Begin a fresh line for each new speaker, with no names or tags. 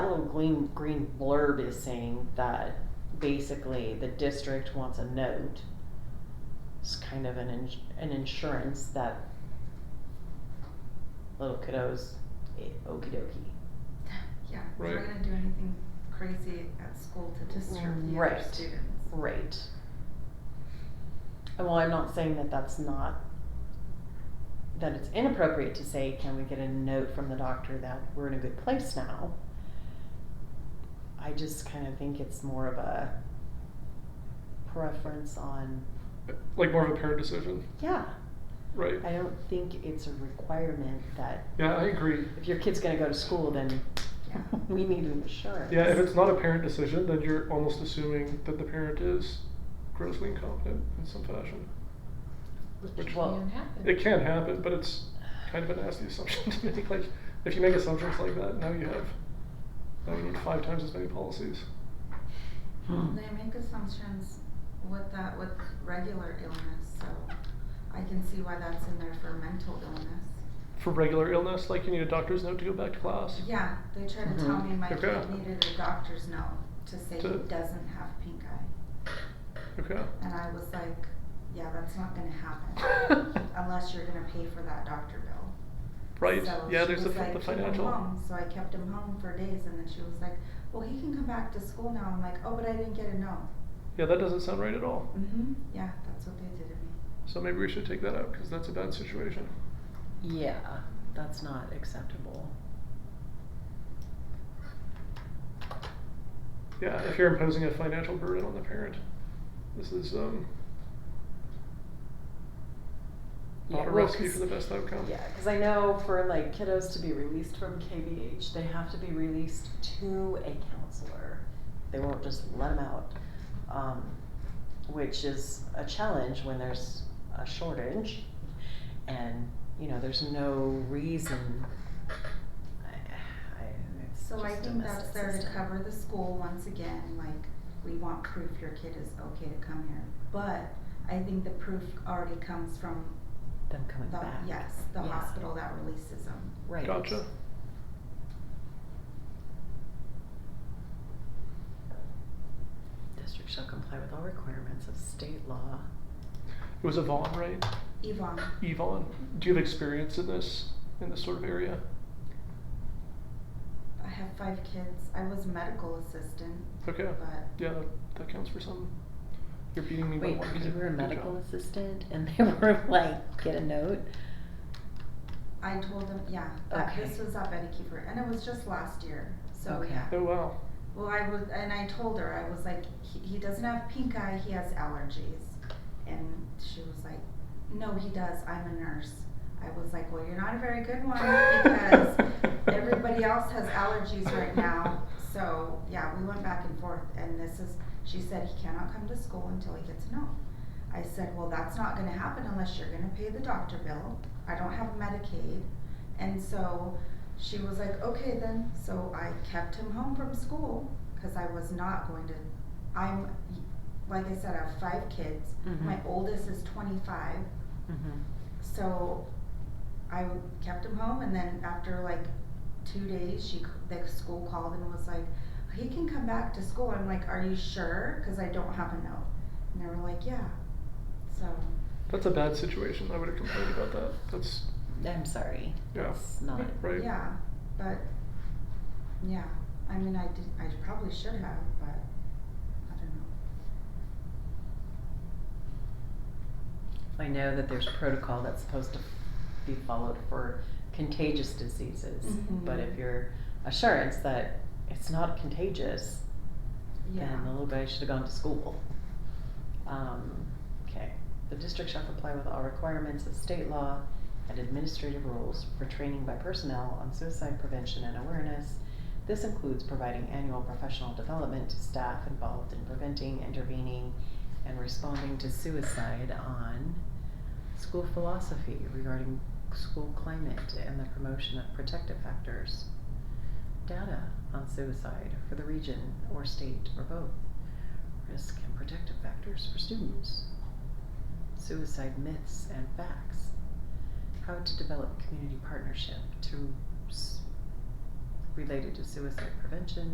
green, green blurb is saying that basically the district wants a note. It's kind of an ins- an insurance that little kiddos, eh, okie dokie.
Yeah,
Right.
we're not gonna do anything crazy at school to disturb the other
Right.
students.
Right. And Well, I'm not saying that that's not, that it's inappropriate to say, can we get a note from the doctor that we're in a good place now? I just kind of think it's more of a preference on,
Like more of a parent decision,
yeah,
right?
I don't think it's a requirement that
Yeah, I agree.
if your kid's gonna go to school, then
Yeah.
we need an assurance.
Yeah, if it's not a parent decision, then you're almost assuming that the parent is grossly incompetent in some fashion.
Which
Well,
can happen.
It can happen, but it's kind of a nasty assumption to make. Like, if you make assumptions like that, now you have, now you need five times as many policies.
Hmm. They make assumptions with that with regular illness, so I can see why that's in there for mental illness.
For regular illness, like you need a doctor's note to go back to class.
Yeah, they try to tell
Mhm.
me my kid
Mm-hmm. Okay.
needed a doctor's note to say he
To-
doesn't have pink eye.
Okay.
And I was like, yeah, that's not gonna happen unless you're gonna pay for that doctor bill.
right.
So
yeah,
she
there's the,
was
fi-
like,
the
"Keep him
financial.
home." So I kept him home for days, and then she was like, "Well, he can come back to school now." I'm like, "Oh, but I didn't get a no."
Yeah, that doesn't sound right at all.
Mm-hmm. Yeah, that's what they did to me.
So maybe we should take that out because that's a bad situation.
Yeah, that's not acceptable.
Yeah, if you're imposing a financial burden on the parent, this is um,
Yeah,
not a
well,
recipe
'cause-
for the best outcome.
Yeah, because I know for like kiddos to be released from KBH, they have to be released to a counselor. They won't just let them out, um, which is a challenge when there's a shortage, and you know there's no reason. I, I, it's
So I
just a
think that's
messed
there to
system.
cover the school once again, like, we want proof your kid is okay to come here. But I think the proof already comes from
them coming
the,
back.
yes, the
Yeah.
hospital that releases them.
Right.
Gotcha.
District shall comply with all requirements of state law.
It was Yvonne, right?
Yvonne,
Yvonne, do you have experience in this in this sort of area?
I have five kids, I was a medical assistant,
Okay.
but
Yeah, that counts for some. You're beating me
Wait,
by one.
you
kid.
were a
Good
medical
job.
assistant and they were like, get a note?
I told them, yeah, that
Okay.
this was at Betty Keeper, and it was just last year, so
Okay.
yeah.
Oh wow.
Well, I was, and I told her, I was like, he, he doesn't have pink eye, he has allergies. And she was like, no, he does, I'm a nurse. I was like, well, you're not a very good one because everybody else has allergies right now. So, yeah, we went back and forth, and this is, she said, he cannot come to school until he gets a no. I said, well, that's not gonna happen unless you're gonna pay the doctor bill. I don't have Medicaid. And so she was like, okay then. So I kept him home from school because I was not going to. I'm, like I said, I have five kids. My oldest is 25. So I w- kept him home, and then after like two days, she c- the school called and was like, "He can come back to school." I'm like, "Are you sure?" Because I don't have a note, and they were like, "Yeah." So
That's a bad situation. I would have complained about that. That's
I'm sorry.
yeah.
It's not.
Right.
yeah, but yeah, I mean, I did. I probably should have, but I don't know.
I know that there's protocol that's supposed to be followed for contagious diseases,
Mhm.
but if your assurance that it's not contagious,
Yeah.
then the little guy should have gone to school. Um, okay. The district shall comply with all requirements of state law and administrative rules for training by personnel on suicide prevention and awareness. This includes providing annual professional development to staff involved in preventing, intervening, and responding to suicide on school philosophy regarding school climate and the promotion of protective factors data on suicide for the region or state or both. Risk and protective factors for students. Suicide myths and facts. How to develop community partnership to s- related to suicide prevention